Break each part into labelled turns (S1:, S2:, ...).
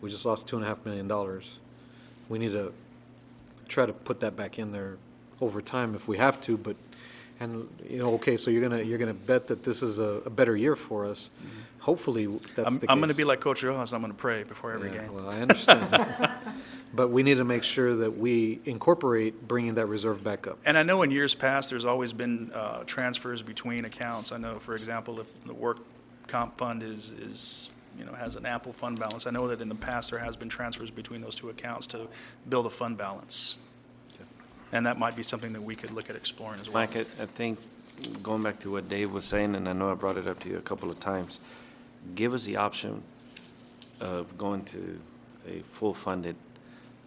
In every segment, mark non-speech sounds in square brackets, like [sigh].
S1: We just lost two and a half million dollars. We need to try to put that back in there over time if we have to, but, and, you know, okay, so you're gonna, you're gonna bet that this is a, a better year for us. Hopefully, that's
S2: Mm-hmm. I'm,
S1: the case.
S2: I'm going to be like Coach Rojas, I'm going to pray before every
S1: Yeah,
S2: game.
S1: Well, I
S2: [laughs]
S1: understand. But we need to make sure that we incorporate bringing that reserve back up.
S2: And I know in years past, there's always been uh, transfers between accounts. I know, for example, if the work comp fund is, is, you know, has an ample fund balance, I know that in the past, there has been transfers between those two accounts to build a fund balance. And that might be something that we could look at exploring as well.
S3: Mike, I, I think, going back to what Dave was saying, and I know I brought it up to you a couple of times, give us the option of going to a full-funded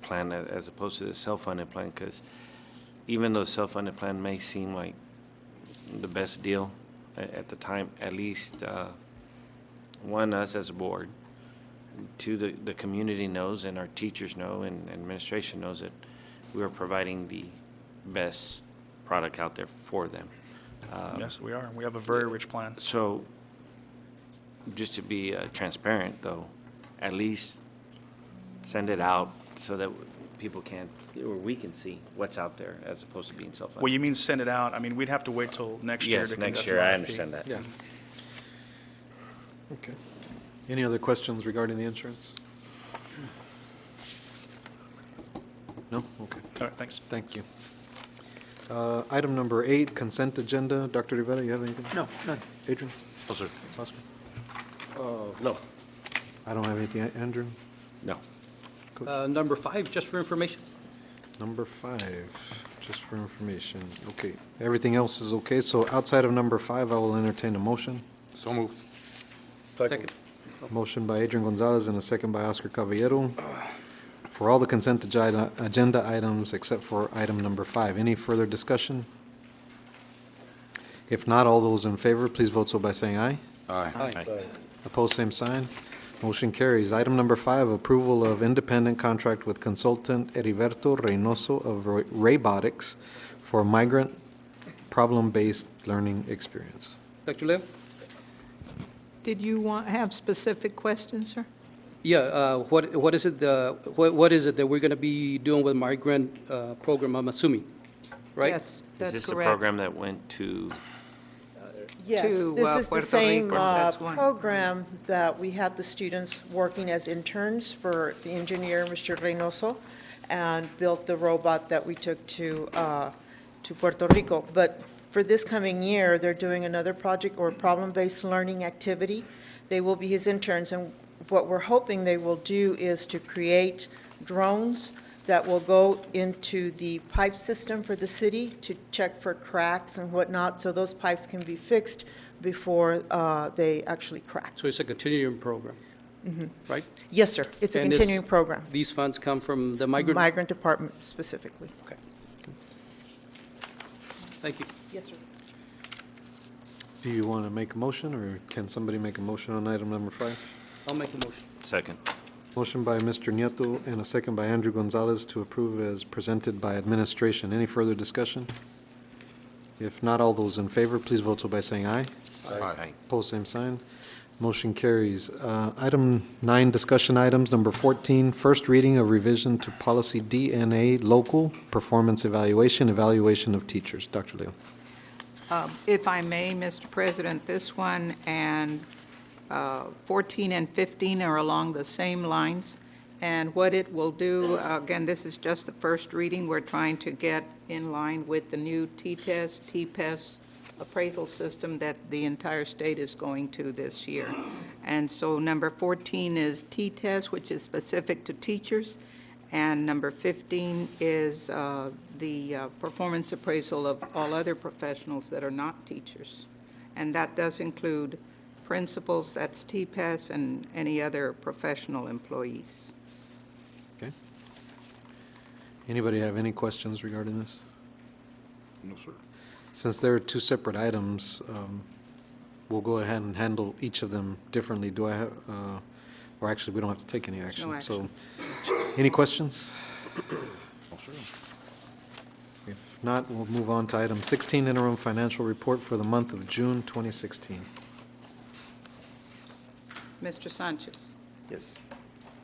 S3: plan a- as opposed to the self-funded plan, because even though self-funded plan may seem like the best deal a- at the time, at least, uh, one, us as a board, two, the, the community knows and our teachers know and administration knows that we are providing the best product out there for them. Um,
S2: Yes, we are. We have a very rich plan.
S3: So, just to be uh, transparent though, at least send it out so that people can, or we can see what's out there as opposed to being self-funded.
S2: Well, you mean send it out? I mean, we'd have to wait till next year to
S3: Yes,
S2: conduct
S3: next
S2: an
S3: year, I
S2: RFP.
S3: understand that.
S1: Yeah. Okay. Any other questions regarding the insurance? No? Okay.
S2: All right, thanks.
S1: Thank you. Uh, Item number eight, consent agenda. Dr. Rivera, you have anything? No, none. Adrian?
S3: No, sir.
S1: Oscar?
S3: No.
S1: I don't have anything. Andrew?
S3: No.
S4: Uh, Number five, just for information.
S1: Number five, just for information. Okay, everything else is okay, so outside of number five, I will entertain a motion.
S5: So moved.
S4: Second.
S1: Motion by Adrian Gonzalez and a second by Oscar Caballero for all the consent agi- agenda items except for item number five. Any further discussion? If not, all those in favor, please vote so by saying aye.
S5: Aye.
S1: Opposed, same sign. Motion carries. Item number five, approval of independent contract with consultant Heriberto Reynoso of Ro- Raybotics for migrant problem-based learning experience.
S4: Dr. Leo?
S6: Did you want, have specific questions, sir?
S4: Yeah, uh, what, what is it, uh, what, what is it that we're going to be doing with migrant uh, program, I'm assuming, right?
S6: Yes,
S3: Is
S6: that's correct.
S3: this the program that went to,
S7: Yes,
S6: to, uh,
S7: this is the
S6: Puerto
S7: same
S6: Rico.
S7: uh,
S6: That's one.
S7: program that we had the students working as interns for the engineer, Mr. Reynoso, and built the robot that we took to, uh, to Puerto Rico. But for this coming year, they're doing another project or problem-based learning activity. They will be his interns, and what we're hoping they will do is to create drones that will go into the pipe system for the city to check for cracks and whatnot, so those pipes can be fixed before uh, they actually crack.
S4: So it's a continuing program, right?
S7: Yes, sir, Mm-hmm. it's a
S4: And this-
S7: continuing program.
S4: These funds come from the migrant?
S7: Migrant Department specifically.
S4: Okay. Thank you.
S7: Yes, sir.
S1: Do you want to make a motion, or can somebody make a motion on item number five?
S4: I'll make a motion.
S3: second?
S1: Motion by Mr. Nieto and a second by Andrew Gonzalez to approve as presented by administration. Any further discussion? If not, all those in favor, please vote so by saying aye.
S3: Aye.
S1: Pose same sign. Motion carries. Uh, Item nine, discussion items, number 14, first reading of revision to policy DNA local performance evaluation, evaluation of teachers. Dr. Leo.
S6: Um, If I may, Mr. President, this one and uh, 14 and 15 are along the same lines. And what it will do, again, this is just the first reading. We're trying to get in line with the new T-test, T-PES appraisal system that the entire state is going to this year. And so number 14 is T-test, which is specific to teachers. And number 15 is uh, the uh, performance appraisal of all other professionals that are not teachers. And that does include principals, that's TPES, and any other professional employees.
S1: Okay. Anybody have any questions regarding this?
S5: No, sir.
S1: Since there are two separate items, um, we'll go ahead and handle each of them differently. Do I have, uh, or actually, we don't have to take any action.
S6: action.
S1: So, any questions?
S5: No, sir.
S1: If not, we'll move on to item 16, interim financial report for the month of June 2016.
S6: Mr. Sanchez?
S5: Yes.